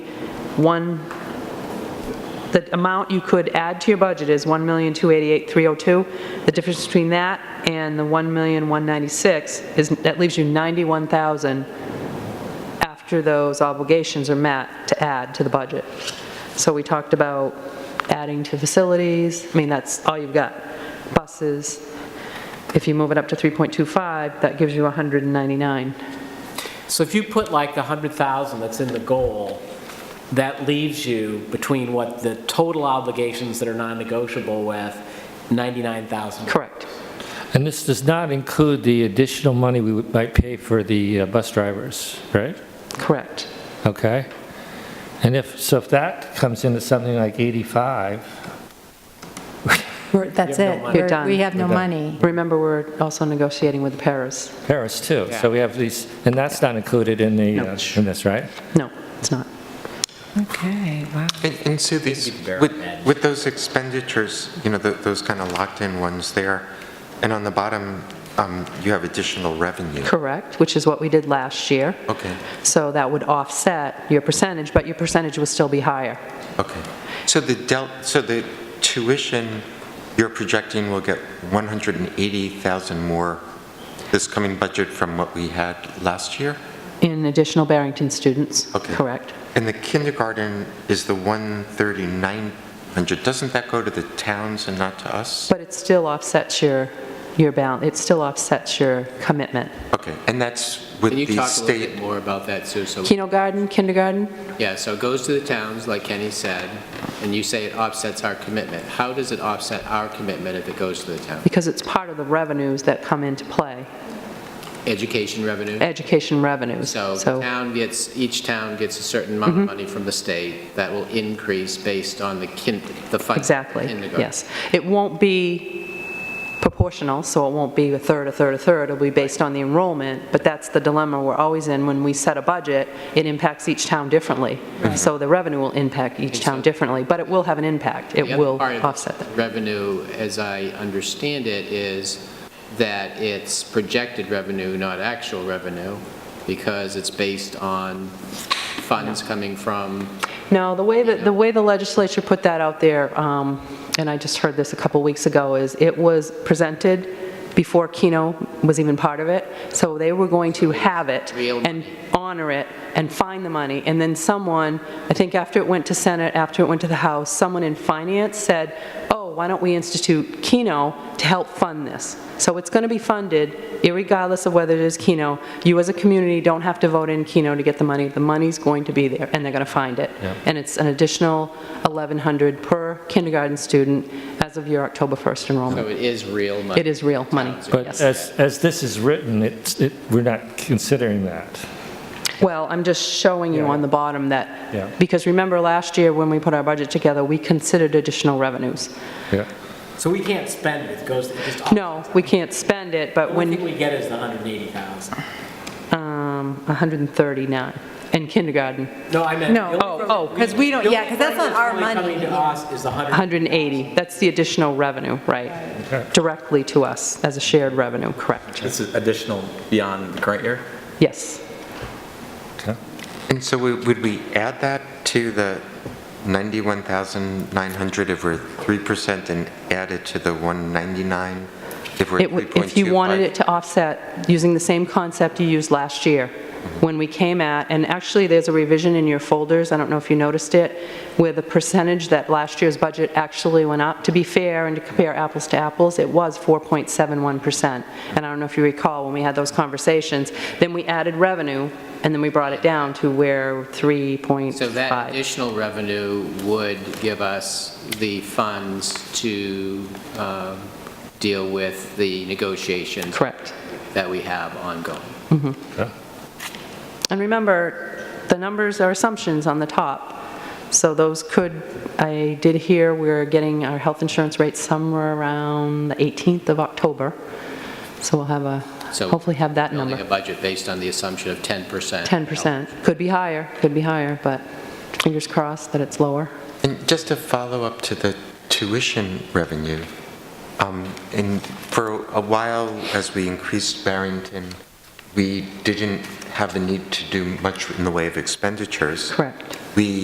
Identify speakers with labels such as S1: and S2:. S1: one, the amount you could add to your budget is $1,288,302. The difference between that and the $1,196 is, that leaves you 91,000 after those obligations are met to add to the budget. So we talked about adding to facilities, I mean, that's all you've got, buses. If you move it up to 3.25, that gives you 199.
S2: So if you put like the 100,000 that's in the goal, that leaves you between what the total obligations that are non-negotiable with, 99,000.
S1: Correct.
S3: And this does not include the additional money we would- might pay for the uh, bus drivers, right?
S1: Correct.
S3: Okay? And if, so if that comes into something like 85,
S4: We're- That's
S2: You have no
S4: it.
S2: money.
S1: You're done.
S4: We're- We have no
S3: You're done.
S4: money.
S1: Remember, we're also negotiating with the Paris.
S3: Paris too. So we have these, and that's not included in the, uh, in this, right?
S1: No, it's not.
S4: Okay, wow.
S5: And and so these, with, with those expenditures, you know, tho- those kind of locked-in ones there, and on the bottom, um, you have additional revenue.
S1: Correct, which is what we did last year.
S5: Okay,
S1: So that would offset your percentage, but your percentage would still be higher.
S5: okay. So the del, so the tuition you're projecting will get 180,000 more this coming budget from what we had last year?
S1: In additional Barrington students.
S5: Okay.
S1: Correct.
S5: And the kindergarten is the 13900. Doesn't that go to the towns and not to us?
S1: But it still offsets your, your balance, it still offsets your commitment.
S5: Okay, and that's with
S6: Can you
S5: the
S6: talk a little bit
S5: state,
S6: more about that, Sue? So,
S1: Kindergarten, kindergarten,
S6: yeah, so it goes to the towns, like Kenny said, and you say it offsets our commitment. How does it offset our commitment if it goes to the town?
S1: because it's part of the revenues that come into play,
S6: Education
S5: Eh,
S6: revenue?
S1: education revenues.
S6: So the town gets, each town gets a certain amount
S5: Mm-hmm.
S6: of money from the state that will increase based on the kin, the funding.
S1: Exactly, yes. It won't be proportional, so it won't be a third, a third, a third, it'll be based on the enrollment, but that's the dilemma we're always in when we set a budget, it impacts each town differently. So the revenue will impact each town differently, but it will have an impact, it will offset that.
S6: The other part of revenue, as I understand it, is that it's projected revenue, not actual revenue, because it's based on funds coming from
S1: No, the way that, the way the legislature put that out there, um, and I just heard this a couple weeks ago, is it was presented before Keno was even part of it, so they were going to have it
S6: Real
S1: and
S6: money.
S1: honor it and find the money, and then someone, I think after it went to Senate, after it went to the House, someone in finance said, oh, why don't we institute Keno to help fund this? So it's going to be funded, irregardless of whether it is Keno. You as a community don't have to vote in Keno to get the money. The money's going to be there, and they're going to find it. And it's an additional 1,100 per kindergarten student as of your October 1st
S6: So
S1: enrollment.
S6: it is real money?
S1: It is real money,
S3: But uh,
S1: yes.
S3: as, as this is written, it's, it- we're not considering that.
S1: Well, I'm just showing you on the bottom
S3: Yeah.
S1: that, because remember last year when we put our budget together, we considered additional revenues.
S3: Yeah.
S2: So we can't spend it, it goes, it just.
S1: No, we can't spend it, but
S2: The only
S1: when,
S2: thing we get is the 180,000.
S1: um, 139 in kindergarten,
S2: No, I meant.
S4: No.
S2: the only
S1: Oh,
S2: revenue-
S1: oh,
S4: 'cause we don't-
S2: the only
S4: yeah, 'cause that's not our
S2: revenue
S4: money.
S2: Coming to us is the 100.
S1: 180, that's the additional revenue, right? Directly to us as a shared revenue, correct?
S7: This is additional beyond the current year?
S1: Yes.
S3: Okay.
S5: and so we- would we add that to the 91,900 if we're 3% and add it to the 199 if we're
S1: It
S5: 3.25?
S1: would- If you wanted it to offset, using the same concept you used last year, when we came at, and actually, there's a revision in your folders, I don't know if you noticed it, where the percentage that last year's budget actually went up, to be fair and to compare apples to apples, it was 4.71%. And I don't know if you recall, when we had those conversations, then we added revenue, and then we brought it down to where 3.5.
S6: So that additional revenue would give us the funds to um, deal with the negotiations
S1: Correct.
S6: that we have ongoing.
S1: And remember, the numbers are assumptions on the top, so those could, I did hear we're getting our health insurance rate somewhere around the 18th of October, so we'll have a,
S6: So
S1: hopefully have that
S6: Building a
S1: number.
S6: budget based on the assumption of 10%.
S1: 10%, could be higher, could be higher, but fingers crossed that it's lower.
S5: And just to follow up to the tuition revenue, um, and for a while, as we increased Barrington, we didn't have a need to do much in the way of expenditures.
S1: Correct.
S5: We